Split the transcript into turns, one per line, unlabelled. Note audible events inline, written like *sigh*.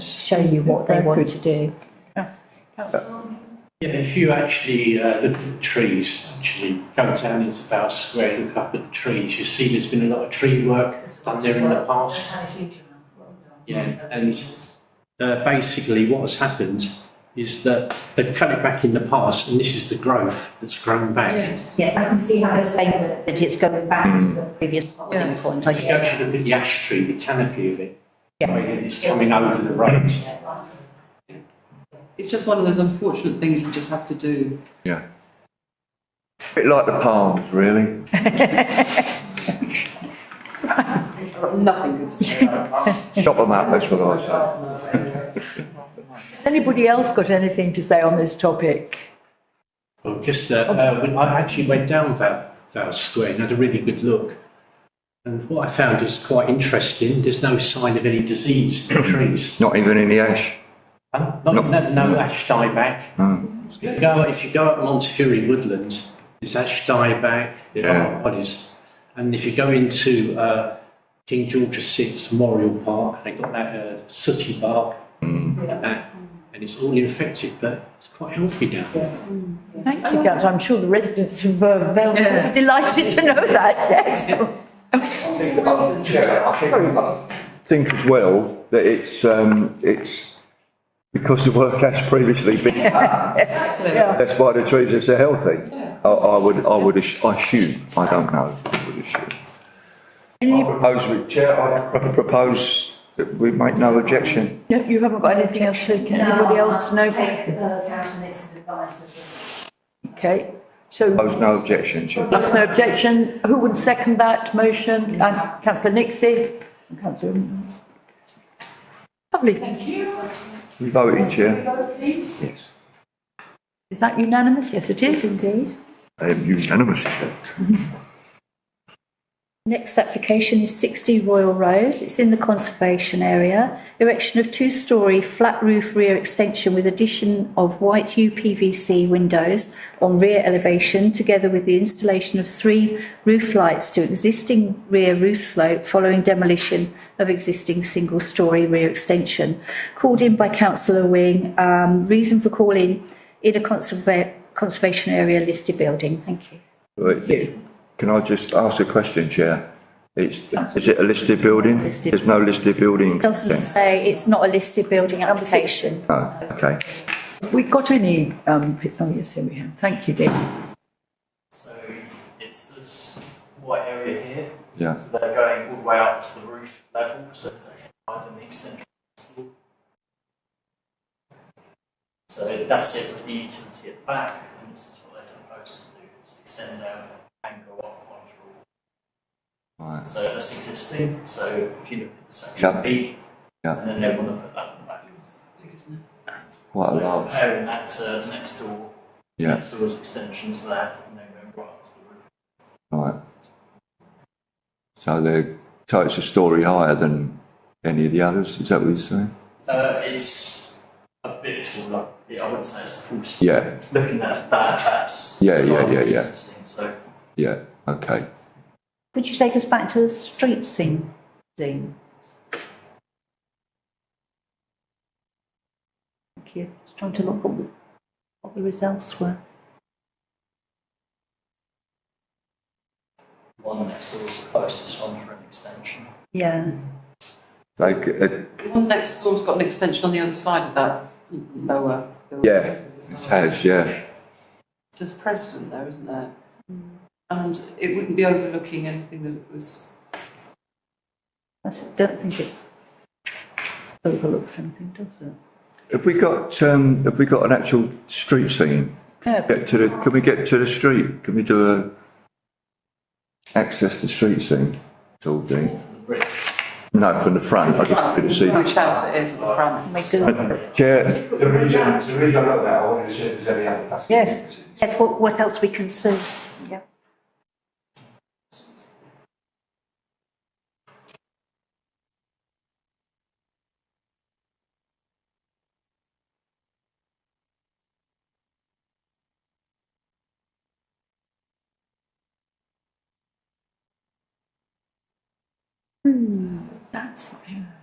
show you what they
Very
want
good.
to do.
Yeah, if you actually uh, look at the trees, actually, downtown is about square, look up at the trees, you see there's been a lot of tree work done there in the past. Yeah, and uh, basically what has happened is that they've cut it back in the past and this is the growth that's grown back.
Yes, I can see how they're saying that, that it's going back to the previous holding
Yes.
point. I
If you
get it.
actually look at the ash tree, the canopy of it,
Yeah.
right, and it's coming over the road.
It's just one of those unfortunate things you just have to do.
Yeah. Bit like the palms, really.
I've got nothing good to say.
Chop them up, that's what I say.
Has anybody else got anything to say on this topic?
Well, just that, uh, when I actually went down Val, Val Square and had a really good look. And what I found is quite interesting, there's no sign of any disease in the
*coughs*
trees.
Not even in the ash.
Uh, Not, no, no ash dieback. If you go, if you go up Montefiore Woodland, there's ash dieback, there
Yeah.
are bodies. And if you go into, uh, King George VI Memorial Park, they've got that, uh, sooty bark and that. And it's all infected, but it's quite healthy down there.
Thank you, Councillor. I'm sure the residents of uh, Vale
*laughs*
are delighted to know that, yes.
Think as well that it's, um, it's because the work has previously been,
Yeah.
that's why the trees are so healthy. I, I would, I would ass- assume, I don't know, I would assume. I propose, we- Chair, I pro- propose that we make no objection.
No, you haven't got anything else to, can anybody else know?
uh, Take the council next advice.
Okay, so
Propose no objection, Chair.
that's no objection. Who would second that motion? And councillor Nixie? And Councillor. Lovely.
You voted, Chair. Yes.
Is that unanimous? Yes, it is.
Indeed.
I am unanimous, Chair.
Next application is 60 Royal Road. It's in the conservation area. Erection of two-storey flat roof rear extension with addition of white UPVC windows on rear elevation, together with the installation of three roof lights to existing rear roof slope following demolition of existing single-storey rear extension. Called in by councillor Wing. Um, Reason for calling in a conserva- conservation area listed building. Thank you.
Right. Can I just ask a question, Chair? It's, is it a listed building? There's no listed building.
Doesn't
consent?
say it's not a listed building application.
No, Oh, okay.
We got any, um, p- oh, yes, here we have. Thank you, Dick.
So it's this white area here.
Yeah.
So they're going all the way up to the roof level, so it's actually higher than the extension. wall. So that's it with the utility at the back, and this is what they're proposed to do, is extend down and go up one floor.
Right.
So that's existing, so if you look at the
Yeah.
section B,
Yeah.
and then they want to put that in the back.
Quite a
So
large,
Comparing that to next door,
yeah,
next door's extensions there, and then going right up to the roof.
right. So they're, so it's a story higher than any of the others, is that what you're saying?
Uh, it's a bit taller. Yeah, I wouldn't say it's a full story.
Yeah,
Looking at that, that's
Yeah, yeah, yeah, yeah.
Existing, so
yeah, okay.
Could you take us back to the street scene?
Dean. Thank you.
I was trying to look what the- what the results were.
one next door is the closest one for an extension.
Yeah.
They, c- uh,
The one next door's got an extension on the other side of that lower. building.
yeah, it has, yeah,
There's precedent there, isn't there? And it wouldn't be overlooking anything that was,
I s- don't think it overlooks anything, does it?
Have we got, um, have we got an actual street scene?
Yeah.
Get to the, can we get to the street? Can we do a, access the street scene? It's all Dean. No, from the front, I just couldn't see.
which house it is at the front.
Chair,
The reason, the reason I wrote that, I wanted to see if there's any other plastic.
Yes.
That's what, what else we can see. Yeah.
That's, yeah.